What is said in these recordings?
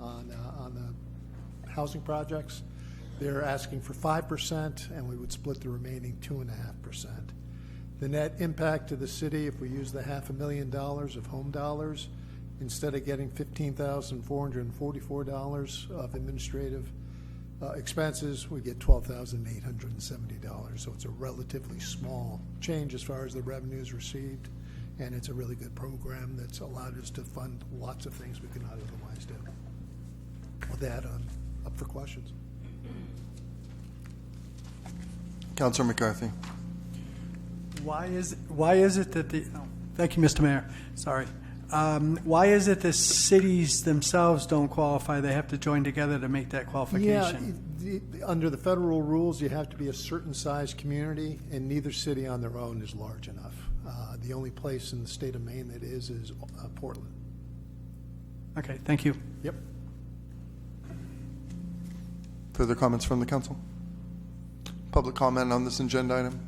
uh, housing projects. They're asking for five percent, and we would split the remaining two and a half percent. The net impact to the city, if we use the half a million dollars of home dollars, instead of getting fifteen thousand four hundred and forty-four dollars of administrative uh, expenses, we get twelve thousand eight hundred and seventy dollars. So it's a relatively small change as far as the revenues received, and it's a really good program that's allowed us to fund lots of things we could not otherwise do. With that, I'm up for questions. Counselor McCarthy. Why is, why is it that the, oh, thank you, Mr. Mayor, sorry. Um, Why is it the cities themselves don't qualify? They have to join together to make that qualification? Yeah, it- the- under the federal rules, you have to be a certain size community, and neither city on their own is large enough. Uh, The only place in the state of Maine that is, is uh, Portland. Okay, thank you. Yep. Further comments from the council? Public comment on this agenda item?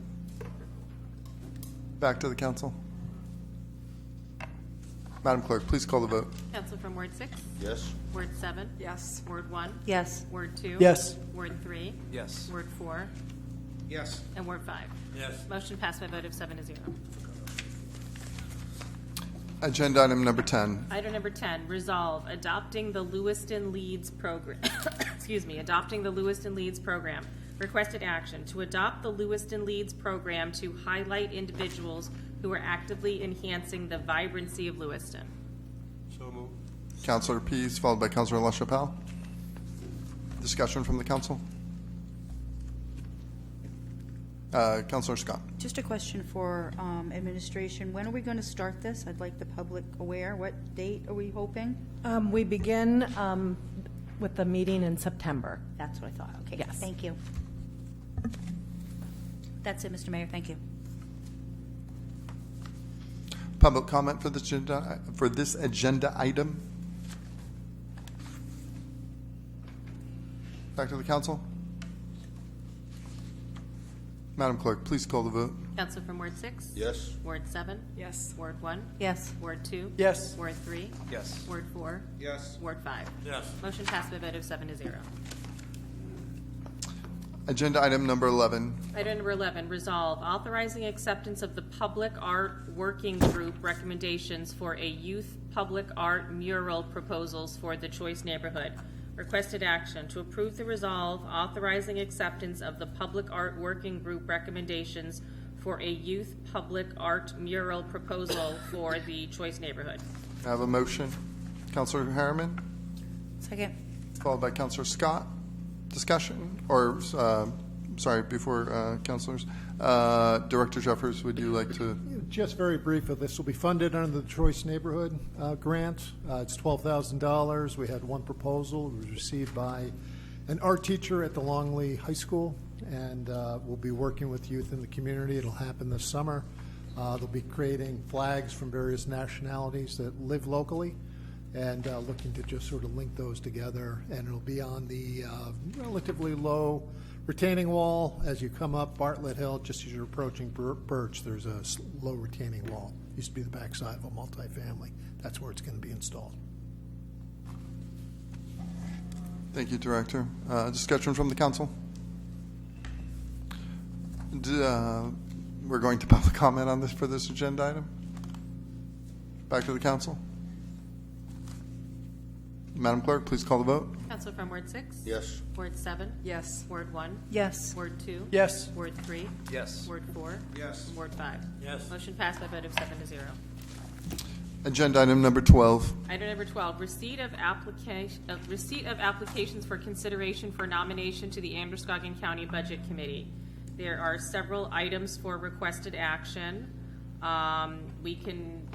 Back to the council. Madam Clerk, please call the vote. Counsel from Ward six, Yes. Ward seven, Yes. Ward one, Yes. Ward two. Yes. Ward three, Yes. Ward four, Yes. and Ward five. Yes. Motion passed by a vote of seven to zero. Agenda item number 10. Item number ten, resolve adopting the Lewiston Leads program, excuse me, adopting the Lewiston Leads program. Requested action to adopt the Lewiston Leads program to highlight individuals who are actively enhancing the vibrancy of Lewiston. So moved. Counselor Pease, followed by Counselor LaChapelle. Discussion from the council? Uh, Counselor Scott. Just a question for um, administration. When are we going to start this? I'd like the public aware. What date are we hoping? Um, We begin um, with the meeting in September. That's what I thought. Okay. Yes. Thank you. That's it, Mr. Mayor. Thank you. Public comment for this agenda, for this agenda item? Back to the council. Madam Clerk, please call the vote. Counsel from Ward six. Yes. Ward seven, Yes. Ward one, Yes. Ward two. Yes. Ward three, Yes. Ward four, Yes. Ward five. Yes. Motion passed by a vote of seven to zero. Agenda item number 11, Item number 11, resolve authorizing acceptance of the Public Art Working Group recommendations for a youth public art mural proposals for the Choice neighborhood. Requested action to approve the resolve authorizing acceptance of the Public Art Working Group recommendations for a youth public art mural proposal for the Choice neighborhood. I have a motion. Counselor Harriman, Second. followed by Counselor Scott. Discussion, or, uh, sorry, before uh, counselors. Uh, Director Jeffers, would you like to? Just very briefly, this will be funded under the Choice Neighborhood uh, Grant. Uh, It's $12,000. We had one proposal, it was received by an art teacher at the Longley High School, and uh, we'll be working with youth in the community. It'll happen this summer. Uh, They'll be creating flags from various nationalities that live locally and uh, looking to just sort of link those together. And it'll be on the uh, relatively low retaining wall as you come up Bartlett Hill, just as you're approaching Bir- Birch. There's a s- low retaining wall. Used to be the backside of a multifamily. That's where it's going to be installed. Thank you, Director. Uh, Discussion from the council? D- uh, We're going to public comment on this for this agenda item? Back to the council? Madam Clerk, please call the vote. Counsel from Ward 6? Yes. Ward 7? Yes. Ward 1? Yes. Ward 2? Yes. Ward 3? Yes. Ward 4? Yes. Ward 5? Yes. Motion passed by a vote of seven to zero. Agenda item number 12. Item number 12, receipt of application, of receipt of applications for consideration for nomination to the Androscoggin County Budget Committee. There are several items for requested action. Um, We can,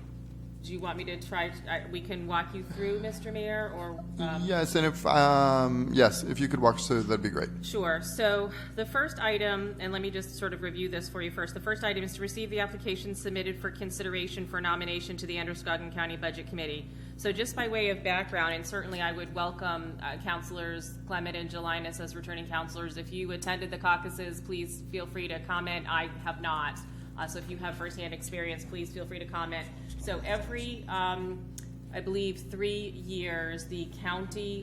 do you want me to try, I- we can walk you through, Mr. Mayor, or? um, Yes, and if, um, yes, if you could walk us through, that'd be great. Sure. So the first item, and let me just sort of review this for you first. The first item is to receive the application submitted for consideration for nomination to the Androscoggin County Budget Committee. So just by way of background, and certainly I would welcome uh, Counselors Clement and Jelinas as returning counselors. If you attended the caucuses, please feel free to comment. I have not. Uh, So if you have firsthand experience, please feel free to comment. So every, um, I believe, three years, the county